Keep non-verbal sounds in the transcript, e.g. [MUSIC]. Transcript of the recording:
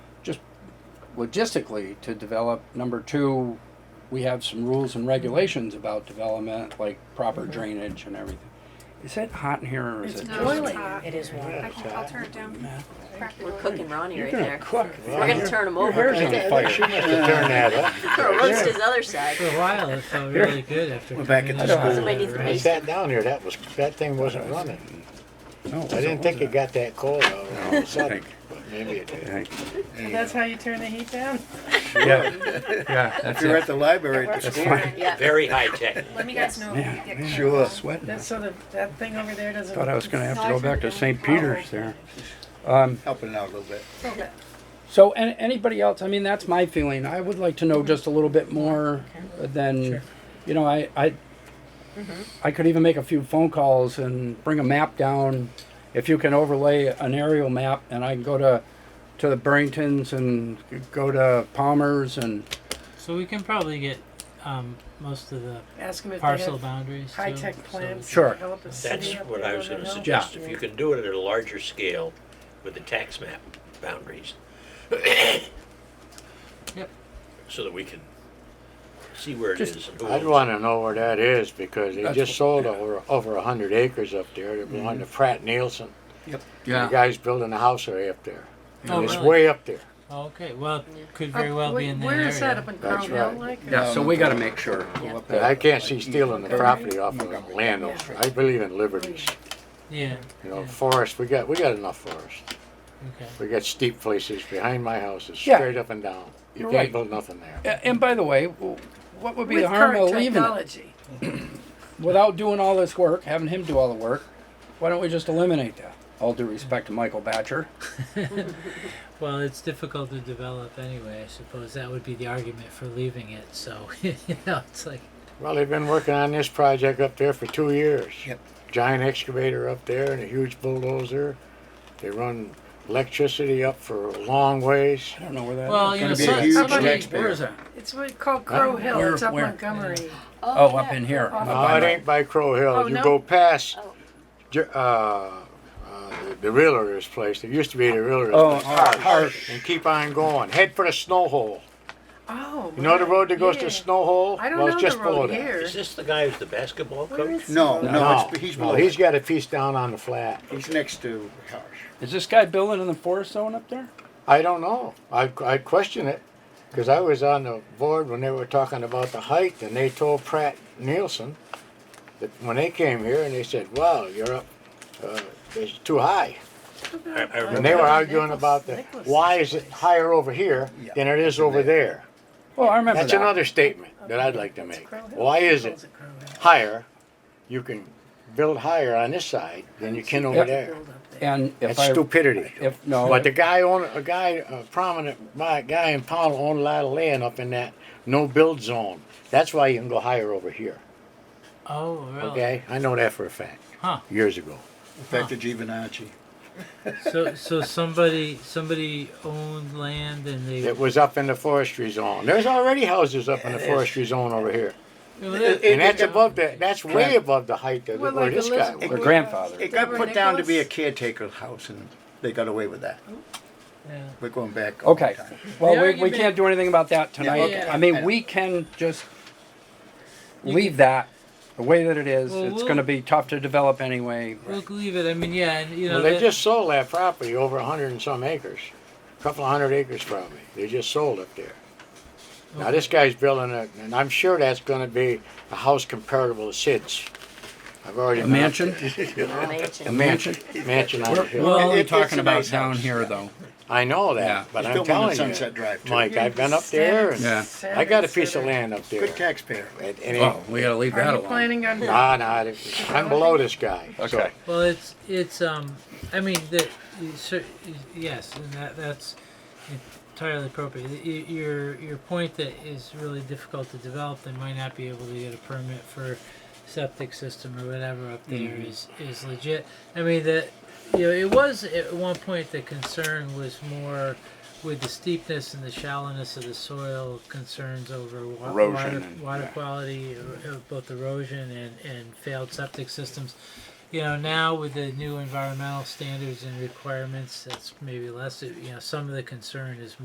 logistically to develop. Number two, we have some rules and regulations about development, like proper drainage and everything. Is it hot in here or is It's it No, just? boiling. It is warm. I can, I'll turn it down. We're cooking Ronnie You're right gonna there. cook. We're gonna turn him Your over. hair's on fire. She must have turned that up. Gonna roast his other side. For a while, it felt really good after. We're back coming at the in school. Somebody needs to right? I sat down here, that was, that thing wasn't running. No, I didn't think it got that cold all of a sudden, but maybe it did. Right. That's how you turn the heat down? Yeah, yeah, that's If you're it. at the library at the That's school, fine. Yeah. Very high tech. Let me guys know Man, if you get. man, Sure. I'm Sweating. That's so that, that thing over there doesn't. Thought I was gonna have to go back to St. Peter's there. helping out a little bit. So, an anybody else, I mean, that's my feeling. I would like to know just a little bit more than, you know, I, I, Mm-hmm. I could even make a few phone calls and bring a map down. If you can overlay an aerial map and I can go to, to the Burringtons and go to Palmer's and, So we can probably get um, most of the Ask them if they parcel have boundaries. too, high-tech so- plans. to Sure. develop a city That's up what there, I was don't gonna know. suggest, if you can do it at a larger scale with the tax map boundaries. Yep. So that we can see where it Just- is. I'd wanna know where that is, because they That's just what- Mm-hmm. sold over, over a hundred acres up there, they belong to Pratt Nielsen. The yeah, guy's building a house right up there, Oh, and it's really? way up there. Oh, okay. Well, it could Up- Oh, very well be Oh, wait, in that Where area. is that, up in Crown That's Hill, right. like? yeah, so we gotta make sure. Yeah. But I can't see stealing the property off of the landowners, I believe in liberties, Yeah. you know, forest, we got, we got enough forest. Okay. We got steep places behind my house, it's Yeah. straight up and down, you You're right. can't build nothing there. A- And by the way, w- what would be With the harm current of leaving it? technology. without doing all this work, having him do all the work, why don't we just eliminate that? All due respect to Michael Batcher. Well, it's difficult to develop anyway. I suppose that would be the argument for leaving it. So, [LAUGHS] you know, it's like Well, they've been working on this project up there for two years. Yep. Giant excavator up there and a huge bulldozer. They run electricity up for long ways. I don't know where that Well, is. you know, be a so, huge somebody. taxpayer. where is that? It's what called Crow Where- Hill, it's up where? Montgomery. Oh, up in here. Off- Uh, No, it ain't by Crow Hill. Oh, you no? go past Oh. Jer- uh, uh, the, the realtor's place. There used to be the realtor's uh, Oh, place. Harsh. Harsh. And keep on going. Head for the snow hole. Oh. You know the right, road that goes yeah. to snow hole? I don't well, know it's just the below road that. here. Is this the guy who's the basketball Where coach? is No, it? no, it's, he's below. no, he's it. got a piece down on the flat. He's next to Harsh. Is this guy building in the forest zone up there? I don't know. I, I question it because I was on the board when they were talking about the height, and they told Pratt Nielsen that when they came here and they said, "Wow, you're up, uh, it's too high," I- I and remember they were Nicholas- arguing about the Nicholas why is it higher over here Yeah. than it is over there. Well, I remember That's that. another statement that I'd like to make. Crow Hill. Why is Crow Hill's it at Crow Hill. higher? You can build higher on this side than you can over Yeah. there. Build up there. And if That's I, stupidity. if no, But the guy own a guy, a prominent buy- guy in Powell owned a lot of land up in that no build zone. That's why you can go higher over here. Oh, really? Okay, I know that for a fact. Huh. Years ago. Back to Givinacci. So, so somebody, somebody owned land and they. It was up in the forestry zone. There's already houses up in the forestry zone over here, Well, it- that- and that's above the that's way above the height of Well, where like this guy Elizabeth- her was. grandfather. It got Remember put down to be a Nicholas? caretaker's house and they got away with that. yeah. We're going back. all the Okay. time. Well, we, we argument- can't do anything about that tonight. okay. I mean, we can just leave that the way that it is. Well, it's we'll- going to be tough to develop anyway. We'll leave it. I mean, yeah, and you know. Well, they that- just sold that property over a hundred and some acres, a couple of hundred acres probably. They just sold up there. Now this guy's building it, and I'm sure that's going to be a house comparable to Sid's. I've already A been up mansion? A Mansion. mansion? there. mansion on the We're, hill. we're only It- it's talking a about nice down house. here, though. I know that, Yeah. but He's I'm built one in telling Sunset you, Drive too. Mike, I've been up there, and Yeah. I got a piece of land up there. Good taxpayer. And, and it- Oh, we got to leave that Are you alone. planning on? nah, nah, it- I'm below this guy. so- Okay. Well, it's it's um, I mean that, you cer- yes, and that that's entirely appropriate. Y- y- Your your point that is really difficult to develop, they might not be able to get a permit for septic system or whatever up there Mm-hmm. is is legit. I mean that you know it was at one point the concern was more with the steepness and the shallowness of the soil concerns over wa- Erosion water, and- water yeah. quality, er- er- both erosion and, and failed septic systems you know now with the new environmental standards and requirements that's maybe less you know some of the concern is